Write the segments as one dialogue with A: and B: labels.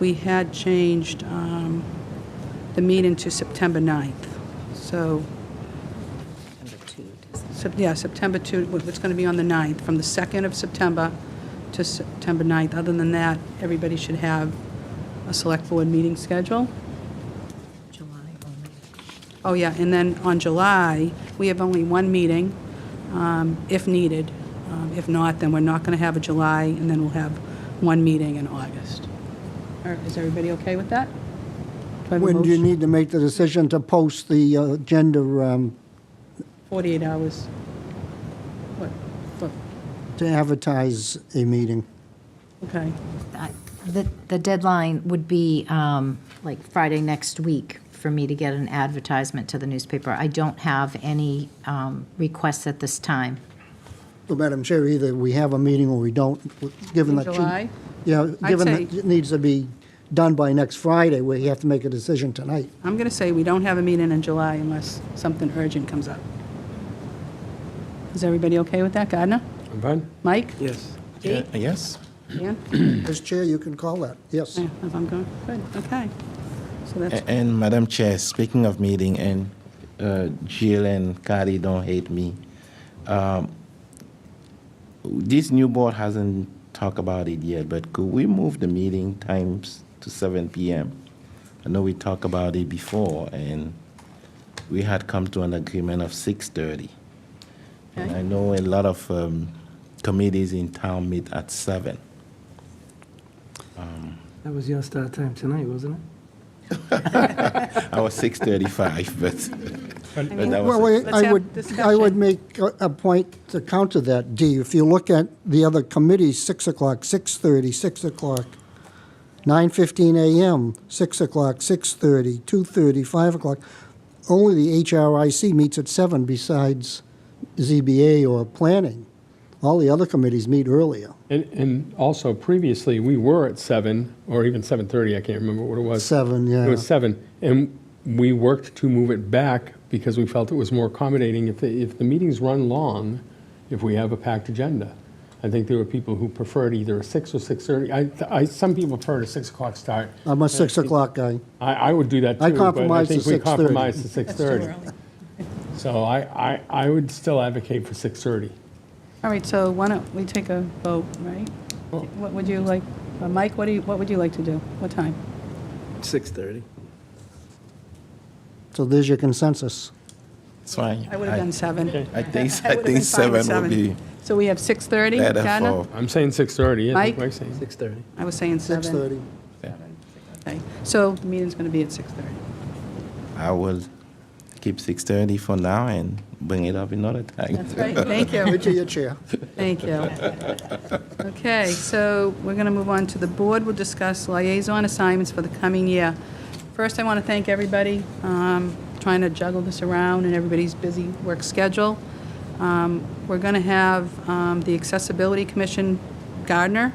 A: we had changed um, the meeting to September 9th. So,
B: September 2. does it?
A: Sep- yeah, September 2, wh- it's going to be on the 9th, from the 2nd of September to September 9th. Other than that, everybody should have a Select Board meeting schedule.
B: July only.
A: Oh, yeah, and then on July, we have only one meeting, um, if needed. Um, If not, then we're not going to have a July, and then we'll have one meeting in August. All right, Is everybody okay with that? Do I have a
C: When do you
A: motion?
C: need to make the decision to post the uh, agenda? um,
A: 48 hours. What, what,
C: to advertise a meeting?
A: okay.
B: I- The the deadline would be um, like Friday next week for me to get an advertisement to the newspaper. I don't have any um, requests at this time.
C: Well, Madam Chair, either we have a meeting or we don't, given
A: In
C: that. you-
A: July?
C: Yeah,
A: I'd
C: given that
A: say-
C: it needs to be done by next Friday, we have to make a decision tonight.
A: I'm going to say we don't have a meeting in July unless something urgent comes up. Is everybody okay with that? Gardner?
D: I'm fine.
A: Mike?
D: Yes.
A: Dee?
E: Uh, Yes?
A: Dan?
C: As Chair, you can call that, yes.
A: Yeah, if I'm going, good, okay. So that's,
E: A- And Madam Chair, speaking of meeting, and uh, Jill and Carrie don't hate me, um, this new board hasn't talked about it yet, but could we move the meeting times to 7 PM? I know we talked about it before, and we had come to an agreement of 6:30. And
A: Okay.
E: I know a lot of um, committees in town meet at 7.
D: That was your start time tonight, wasn't it?
E: I was 6:35, but... but that was
C: Well,
E: it.
C: I-
A: Let's have
C: I would, I
A: discussion.
C: would make a- a point to counter that, Dee. If you look at the other committees, 6 o'clock, 6:30, 6 o'clock, 9:15 a.m., 6 o'clock, 6:30, 2:30, 5 o'clock. Only the HRIC meets at 7 besides ZBA or planning. All the other committees meet earlier,
F: And, and also previously, we were at seven, or even seven thirty, I can't remember what it was.
C: 7, yeah.
F: It was seven, and we worked to move it back because we felt it was more accommodating if, the if the meetings run long, if we have a packed agenda. I think there were people who preferred either a six or six thirty, I, I, some people preferred a six o'clock start.
C: I'm a 6 o'clock guy.
F: I, I would do that too.
C: I
F: but
C: compromised to
F: think we
C: 6:30.
F: compromised to six thirty. So I, I, I would still advocate for six thirty.
A: all right, so why don't we take a vote, right? What would you like, uh, Mike, what do you, what would you like to do? What time?
D: 6:30.
C: So there's your consensus.
E: It's fine.
A: I would have done seven.
E: I think,
A: I
E: I
A: would've been
E: think
A: fine with
E: seven would be
A: So we have 6:30,
E: better
A: Gardner?
E: for,
F: I'm saying six thirty, yeah,
A: Mike?
F: that's what I'm saying.
D: 6:30.
A: I was saying seven.
C: 6:30.
A: Okay, so the meeting's going to be at 6:30.
E: I will keep 6:30 for now and bring it up another time.
A: That's great, thank you.
C: To your chair.
A: Thank you. Okay, so we're going to move on to the board. We'll discuss liaison assignments for the coming year. First, I want to thank everybody, um, trying to juggle this around and everybody's busy work schedule. Um, We're going to have um, the Accessibility Commission, Gardner,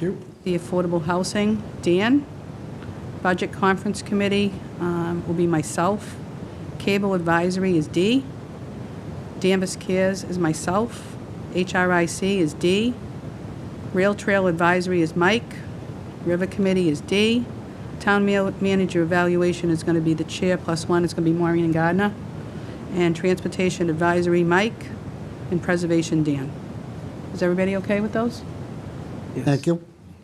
A: the Affordable Housing, Dan, Budget Conference Committee um, will be myself, Cable Advisory is D. Danvers Cares is myself. HRIC is D. Rail Trail Advisory is Mike. River Committee is D. Town Ma- Manager Evaluation is going to be the chair, plus one is going to be Maureen Gardner. And Transportation Advisory, Mike. And Preservation, Dan. Is everybody okay with those?
C: Thank you.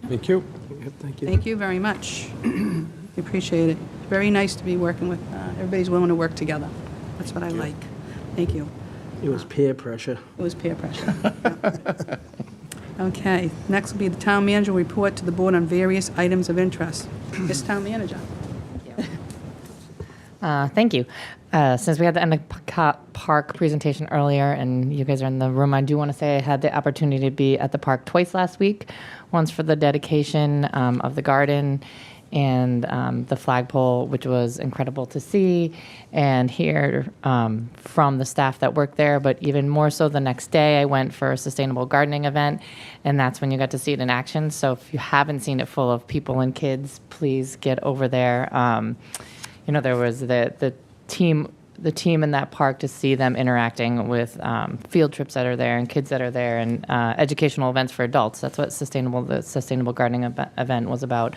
F: Thank you.
D: Yep, Thank you.
A: Thank you very much. We Appreciate it. Very nice to be working with, uh, everybody's willing to work together. That's what I like. Thank you.
D: It was peer pressure.
A: It was peer pressure. Yep. Okay, next will be the town manager report to the board on various items of interest. This town manager.
G: Uh, thank you. Uh, since we had the Emmett Pacott Park presentation earlier and you guys are in the room, I do want to say I had the opportunity to be at the park twice last week once for the dedication um, of the garden and um, the flagpole, which was incredible to see and hear um, from the staff that worked there. But even more so, the next day I went for a sustainable gardening event, and that's when you got to see it in action. So if you haven't seen it full of people and kids, please get over there. Um, you know there was the the team the team in that park to see them interacting with um, field trips that are there and kids that are there and uh, educational events for adults that's what sustainable the sustainable gardening ev- event was about